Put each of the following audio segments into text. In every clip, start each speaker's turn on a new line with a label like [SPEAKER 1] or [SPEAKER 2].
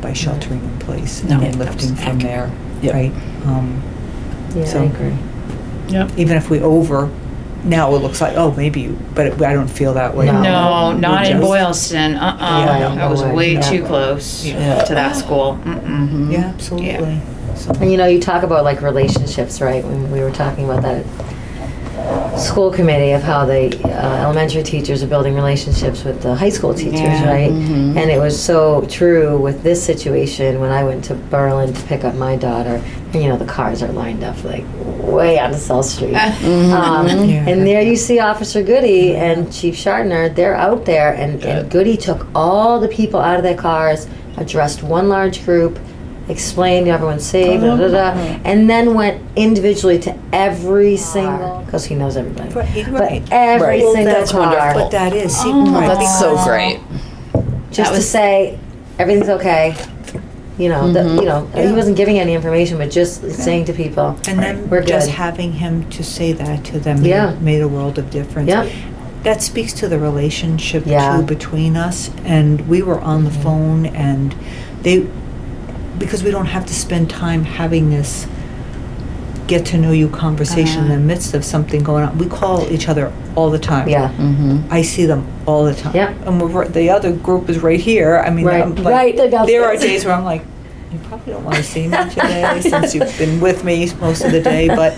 [SPEAKER 1] by sheltering in place
[SPEAKER 2] No.
[SPEAKER 1] and then
[SPEAKER 2] Yeah,
[SPEAKER 1] lifting from there,
[SPEAKER 2] Yep.
[SPEAKER 1] right? Um,
[SPEAKER 3] Yeah,
[SPEAKER 1] So-
[SPEAKER 3] I agree.
[SPEAKER 2] Yep.
[SPEAKER 1] Even if we over, now it looks like, oh, maybe, you- but it- I don't feel that way.
[SPEAKER 3] No.
[SPEAKER 4] No, not in
[SPEAKER 1] Just-
[SPEAKER 4] Boylston,
[SPEAKER 1] Yeah,
[SPEAKER 4] uh-uh.
[SPEAKER 1] no,
[SPEAKER 4] That was
[SPEAKER 3] no way,
[SPEAKER 4] way
[SPEAKER 3] no.
[SPEAKER 4] too close
[SPEAKER 2] Yeah.
[SPEAKER 4] to that school. Mm-mm.
[SPEAKER 1] Yeah, absolutely. So-
[SPEAKER 3] And you know, you talk about like relationships, right? When we were talking about that school committee of how the uh, elementary teachers are building relationships with the high school teachers,
[SPEAKER 4] Yeah. Mm-hmm.
[SPEAKER 3] right?
[SPEAKER 2] Mhm.
[SPEAKER 3] And it was so true with this situation when I went to Berlin to pick up my daughter. And, you know, the cars are lined up like way out of South
[SPEAKER 4] Uh,
[SPEAKER 3] Street. Um,
[SPEAKER 2] Mm-hmm.
[SPEAKER 4] mm-hmm.
[SPEAKER 1] Yeah.
[SPEAKER 3] And there you see Officer Goody and Chief Shartner, they're out there, and, and Goody took all the people out of their cars, addressed one large group, explained everyone's safe, da, da, da, and then went individually to every single, because he knows everybody.
[SPEAKER 5] Right,
[SPEAKER 3] But
[SPEAKER 5] right.
[SPEAKER 3] every
[SPEAKER 5] Right.
[SPEAKER 3] single
[SPEAKER 5] That's
[SPEAKER 3] car,
[SPEAKER 5] But that is, see,
[SPEAKER 4] Oh,
[SPEAKER 5] right,
[SPEAKER 4] that's so
[SPEAKER 5] because-
[SPEAKER 4] great.
[SPEAKER 3] just
[SPEAKER 4] That
[SPEAKER 3] to
[SPEAKER 4] was-
[SPEAKER 3] say everything's okay. You know, the, you know, he
[SPEAKER 5] Yeah.
[SPEAKER 3] wasn't giving any information, but just saying to people,
[SPEAKER 1] And then
[SPEAKER 3] we're
[SPEAKER 1] just
[SPEAKER 3] good.
[SPEAKER 1] having him to say that to them
[SPEAKER 3] Yeah.
[SPEAKER 1] made a world of difference.
[SPEAKER 3] Yep.
[SPEAKER 1] That speaks to the relationship
[SPEAKER 3] Yeah. Mm-hmm.
[SPEAKER 1] too between us. And we were on the phone, and they, because we don't have to spend time having this get to know you conversation
[SPEAKER 3] Uh-huh.
[SPEAKER 1] in the midst of something going on. We call each other all the time.
[SPEAKER 3] yeah,
[SPEAKER 2] Mm-hmm.
[SPEAKER 1] I see them all the time.
[SPEAKER 3] Yep.
[SPEAKER 1] And we're, right- the other group is right here. I mean,
[SPEAKER 3] Right.
[SPEAKER 1] I'm like,
[SPEAKER 3] Right, they're
[SPEAKER 1] there are
[SPEAKER 3] downstairs.
[SPEAKER 1] days where I'm like, you probably don't want to see me today since you've been with me most of the day, but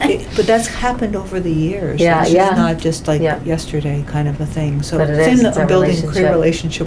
[SPEAKER 1] it, but that's happened over the years.
[SPEAKER 3] Yeah,
[SPEAKER 1] it's
[SPEAKER 3] yeah.
[SPEAKER 1] just not just like
[SPEAKER 3] Yeah.
[SPEAKER 1] yesterday kind of a thing. So
[SPEAKER 3] But it
[SPEAKER 1] same
[SPEAKER 3] is,
[SPEAKER 1] that
[SPEAKER 3] it's
[SPEAKER 1] I'm
[SPEAKER 3] a
[SPEAKER 1] building a great
[SPEAKER 3] relationship.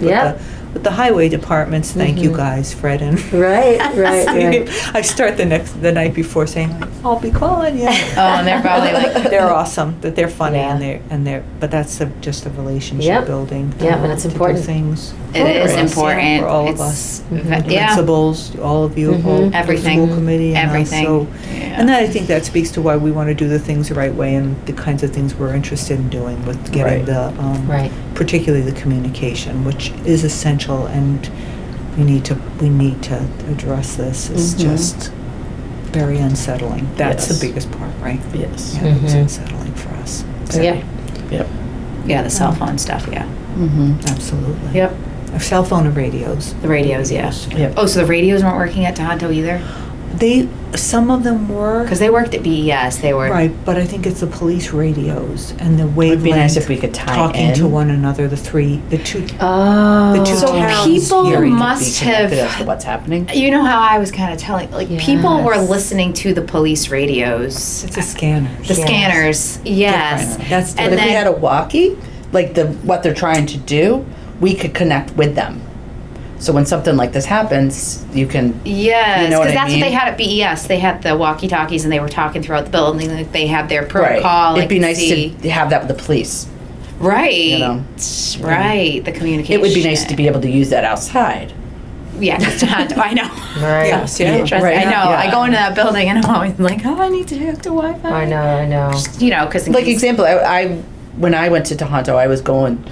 [SPEAKER 1] relationship with
[SPEAKER 3] Yeah.
[SPEAKER 1] the with the highway departments. Thank you guys, Fred and
[SPEAKER 3] right, right, right.
[SPEAKER 1] I start the next the night before saying like, I'll be calling you.
[SPEAKER 4] Oh, and they're probably like,
[SPEAKER 1] they're awesome. That they're funny and
[SPEAKER 3] Yeah.
[SPEAKER 1] they're and they're but that's a, just a relationship
[SPEAKER 3] Yep.
[SPEAKER 1] building.
[SPEAKER 3] Yep, and it's
[SPEAKER 1] to do
[SPEAKER 3] important.
[SPEAKER 1] Things
[SPEAKER 4] it
[SPEAKER 1] for
[SPEAKER 4] is
[SPEAKER 1] us,
[SPEAKER 4] important.
[SPEAKER 1] for all of
[SPEAKER 4] It's
[SPEAKER 1] us. Mm-hmm.
[SPEAKER 4] ve-
[SPEAKER 1] The
[SPEAKER 4] Yeah.
[SPEAKER 1] Principals, all of you, all
[SPEAKER 3] Mhm.
[SPEAKER 1] the
[SPEAKER 4] Everything.
[SPEAKER 1] school committee, and us.
[SPEAKER 4] Everything.
[SPEAKER 1] So,
[SPEAKER 4] Yeah.
[SPEAKER 1] and that I think that speaks to why we want to do the things the right way and the kinds of things we're interested in doing with getting
[SPEAKER 2] Right.
[SPEAKER 1] the um,
[SPEAKER 3] Right.
[SPEAKER 1] particularly the communication, which is essential, and we need to we need to address this. It's
[SPEAKER 4] Mm-hmm.
[SPEAKER 2] Mhm.
[SPEAKER 1] just very unsettling. That's
[SPEAKER 2] Yes.
[SPEAKER 1] the biggest part, right?
[SPEAKER 2] Yes.
[SPEAKER 1] Yeah, it's
[SPEAKER 4] Mm-hmm.
[SPEAKER 3] Mhm.
[SPEAKER 1] unsettling for us. So,
[SPEAKER 3] Yeah.
[SPEAKER 2] Yep.
[SPEAKER 4] Yeah, the cell phone stuff, yeah.
[SPEAKER 2] Mm-hmm.
[SPEAKER 1] absolutely.
[SPEAKER 4] Yep.
[SPEAKER 1] Uh, Cell phone and radios.
[SPEAKER 4] The radios, yeah.
[SPEAKER 2] Yep.
[SPEAKER 4] Oh, so the radios weren't working at Tohoto either?
[SPEAKER 1] They some of them were
[SPEAKER 4] Because they worked at BES, they were.
[SPEAKER 1] right, but I think it's the police radios and the wavelength.
[SPEAKER 2] Would be nice if we could tie
[SPEAKER 1] talking
[SPEAKER 2] in.
[SPEAKER 1] to one another. The three, the two.
[SPEAKER 3] Oh,
[SPEAKER 1] The two
[SPEAKER 4] So
[SPEAKER 1] towns
[SPEAKER 4] people
[SPEAKER 1] here.
[SPEAKER 2] Hearing to be
[SPEAKER 4] must have-
[SPEAKER 2] connected as to what's happening.
[SPEAKER 4] You know how I was kind of telling, like, people were
[SPEAKER 3] Yes.
[SPEAKER 4] listening to the police radios.
[SPEAKER 1] It's a scanner.
[SPEAKER 4] The scanners, yes.
[SPEAKER 1] Different. That's
[SPEAKER 4] And
[SPEAKER 2] but if we
[SPEAKER 4] then-
[SPEAKER 2] had a walkie, like the what they're trying to do, we could connect with them. So when something like this happens, you can.
[SPEAKER 4] Yes,
[SPEAKER 2] You know
[SPEAKER 4] because
[SPEAKER 2] what I
[SPEAKER 4] that's
[SPEAKER 2] mean?
[SPEAKER 4] what they had at BES. They had the walkie-talkies and they were talking throughout the building. Like they had their
[SPEAKER 2] Right.
[SPEAKER 4] protocol.
[SPEAKER 2] It'd
[SPEAKER 4] like,
[SPEAKER 2] be nice
[SPEAKER 4] see-
[SPEAKER 2] to have that with the police.
[SPEAKER 4] right,
[SPEAKER 2] know.
[SPEAKER 4] right. The communication.
[SPEAKER 2] It would be nice to be able to use that outside.
[SPEAKER 4] Yeah, it's not- I know.
[SPEAKER 3] right.
[SPEAKER 1] Yes,
[SPEAKER 2] yeah.
[SPEAKER 4] Trust-
[SPEAKER 2] Right.
[SPEAKER 4] I know.
[SPEAKER 2] Yeah.
[SPEAKER 4] I go into that building and I'm always like, oh, I need to hook to Wi-Fi.
[SPEAKER 3] I know, I know.
[SPEAKER 4] You know, because
[SPEAKER 2] Like example, I, I when I went to Tohoto, I was going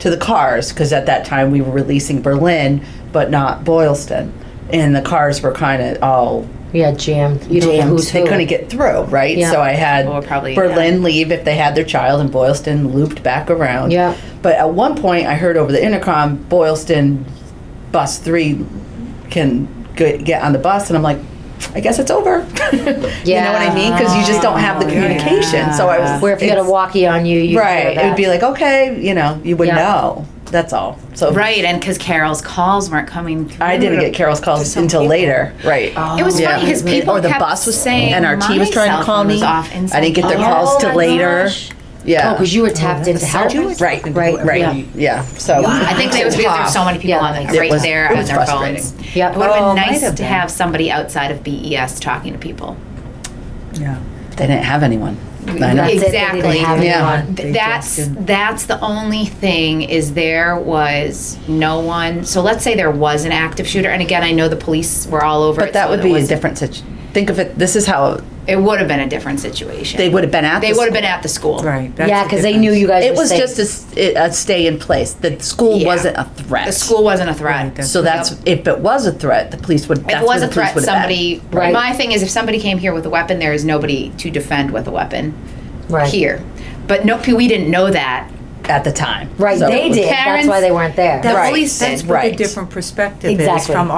[SPEAKER 2] to the cars because at that time we were releasing Berlin, but not Boylston, and the cars were kind of all
[SPEAKER 3] Yeah, jammed. You don't know
[SPEAKER 2] jammed.
[SPEAKER 3] who's
[SPEAKER 2] They
[SPEAKER 3] who.
[SPEAKER 2] couldn't get through, right?
[SPEAKER 3] Yeah.
[SPEAKER 2] So I had
[SPEAKER 4] Or probably,
[SPEAKER 2] Berlin leave if they had their child, and Boylston looped back around.
[SPEAKER 3] Yeah.
[SPEAKER 2] But at one point, I heard over the intercom, Boylston bus three can go- get on the bus, and I'm like, I guess it's over. You know what I mean? Because you just don't have the
[SPEAKER 4] Yeah.
[SPEAKER 2] communication. So I was
[SPEAKER 3] Where if you got a
[SPEAKER 2] it's-
[SPEAKER 3] walkie on you, you
[SPEAKER 2] right.
[SPEAKER 3] Know
[SPEAKER 2] It would be like
[SPEAKER 3] that.
[SPEAKER 2] okay, you know, you would
[SPEAKER 3] Yeah.
[SPEAKER 2] know. That's all. So
[SPEAKER 4] right, and because Carol's calls weren't coming. through.
[SPEAKER 2] I didn't get Carol's calls until later. Right.
[SPEAKER 4] It was funny because people
[SPEAKER 2] or the
[SPEAKER 4] kept
[SPEAKER 2] bus was
[SPEAKER 4] saying
[SPEAKER 2] NRT was
[SPEAKER 4] my
[SPEAKER 2] trying
[SPEAKER 4] cell
[SPEAKER 2] to call
[SPEAKER 4] phone
[SPEAKER 2] me.
[SPEAKER 4] was off
[SPEAKER 2] I
[SPEAKER 4] and Oh
[SPEAKER 2] didn't get their
[SPEAKER 4] something.
[SPEAKER 2] calls till
[SPEAKER 3] Oh my
[SPEAKER 2] later.
[SPEAKER 3] gosh.
[SPEAKER 2] Yeah.
[SPEAKER 3] Oh, because you were tapped into help.
[SPEAKER 1] You were
[SPEAKER 2] Right,
[SPEAKER 1] talking to
[SPEAKER 3] right,
[SPEAKER 1] whoever
[SPEAKER 2] right.
[SPEAKER 1] you-
[SPEAKER 2] Yeah. So
[SPEAKER 4] I think it was because there were so many people
[SPEAKER 3] Yeah,
[SPEAKER 4] on
[SPEAKER 3] that
[SPEAKER 4] the,
[SPEAKER 3] makes
[SPEAKER 4] right
[SPEAKER 2] sense. It
[SPEAKER 4] there
[SPEAKER 2] was-
[SPEAKER 4] on
[SPEAKER 2] it
[SPEAKER 4] their
[SPEAKER 2] was
[SPEAKER 4] phones.
[SPEAKER 3] Yeah.
[SPEAKER 4] It would have
[SPEAKER 1] Oh,
[SPEAKER 4] been
[SPEAKER 1] might
[SPEAKER 4] nice
[SPEAKER 1] have
[SPEAKER 4] to
[SPEAKER 1] been.
[SPEAKER 4] have somebody outside of BES talking to people.
[SPEAKER 1] Yeah.
[SPEAKER 2] They didn't have anyone. I know.
[SPEAKER 3] That's it, they didn't
[SPEAKER 4] Exactly.
[SPEAKER 3] have
[SPEAKER 2] Yeah.
[SPEAKER 3] anyone.
[SPEAKER 1] They
[SPEAKER 4] Th- That's,
[SPEAKER 1] just didn't.
[SPEAKER 4] that's the only thing is there was no one, so let's say there was an active shooter, and again, I know the police were all over it.
[SPEAKER 2] But that
[SPEAKER 4] so
[SPEAKER 2] would
[SPEAKER 4] there
[SPEAKER 2] be a
[SPEAKER 4] wasn't-
[SPEAKER 2] different situation. Think of it. This is how
[SPEAKER 4] It would have been a different situation.
[SPEAKER 2] they would have been at.
[SPEAKER 4] They
[SPEAKER 2] the
[SPEAKER 4] would have
[SPEAKER 2] school.
[SPEAKER 4] been at the school.
[SPEAKER 1] Right. that's
[SPEAKER 3] Yeah,
[SPEAKER 1] the
[SPEAKER 3] because they knew
[SPEAKER 1] difference.
[SPEAKER 3] you guys.
[SPEAKER 2] It
[SPEAKER 3] were
[SPEAKER 2] was
[SPEAKER 3] safe.
[SPEAKER 2] just a s- a, stay in place. The school
[SPEAKER 4] Yeah.
[SPEAKER 2] wasn't a threat.
[SPEAKER 4] The school wasn't a threat.
[SPEAKER 2] So that's if it was a threat, the police would.
[SPEAKER 4] If
[SPEAKER 2] that's
[SPEAKER 4] it was
[SPEAKER 2] where the
[SPEAKER 4] a
[SPEAKER 2] police
[SPEAKER 4] threat,
[SPEAKER 2] would have been.
[SPEAKER 4] somebody,
[SPEAKER 3] Right.
[SPEAKER 4] my thing is if somebody came here with a weapon, there is nobody to defend with a weapon
[SPEAKER 3] right.
[SPEAKER 4] here. But no, we didn't know that.
[SPEAKER 2] at the time.
[SPEAKER 3] Right,
[SPEAKER 2] So
[SPEAKER 3] they
[SPEAKER 2] it was-
[SPEAKER 3] did. That's why
[SPEAKER 4] Parents-
[SPEAKER 3] they weren't there.
[SPEAKER 1] That's-
[SPEAKER 2] Right.
[SPEAKER 4] police
[SPEAKER 1] That's
[SPEAKER 4] did.
[SPEAKER 1] what a
[SPEAKER 2] Right.
[SPEAKER 1] different perspective is
[SPEAKER 3] Exactly.
[SPEAKER 1] from